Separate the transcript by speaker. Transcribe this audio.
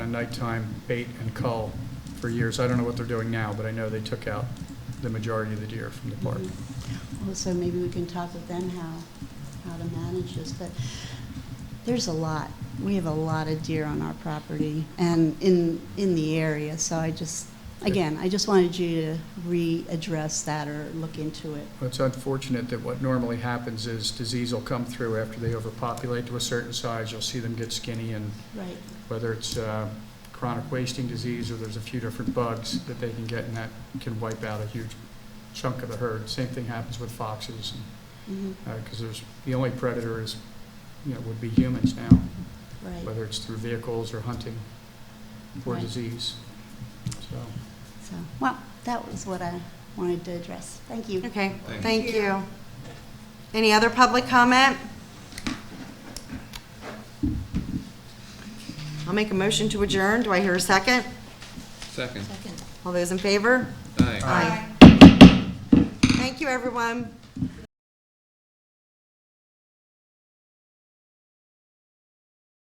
Speaker 1: nighttime bait and cull for years. I don't know what they're doing now, but I know they took out the majority of the deer from the park.
Speaker 2: Mm-hmm. Also, maybe we can talk with them how, how to manage this, but there's a lot. We have a lot of deer on our property and in, in the area, so I just, again, I just wanted you to readdress that or look into it.
Speaker 1: It's unfortunate that what normally happens is disease will come through after they overpopulate to a certain size. You'll see them get skinny and
Speaker 2: Right.
Speaker 1: whether it's uh, chronic wasting disease or there's a few different bugs that they can get and that can wipe out a huge chunk of the herd. Same thing happens with foxes
Speaker 2: Mhm.
Speaker 1: because there's, the only predator is, you know, would be humans now,
Speaker 2: Right,
Speaker 1: whether it's through vehicles or hunting or
Speaker 2: Right.
Speaker 1: disease. So,
Speaker 2: so, well, that was what I wanted to address. Thank you.
Speaker 3: Okay,
Speaker 4: Thank
Speaker 3: thank you. Any other public comment? I'll make a motion to adjourn. Do I hear a second?
Speaker 4: Second.
Speaker 3: All those in favor?
Speaker 4: Aye.
Speaker 3: Aye. Thank you, everyone.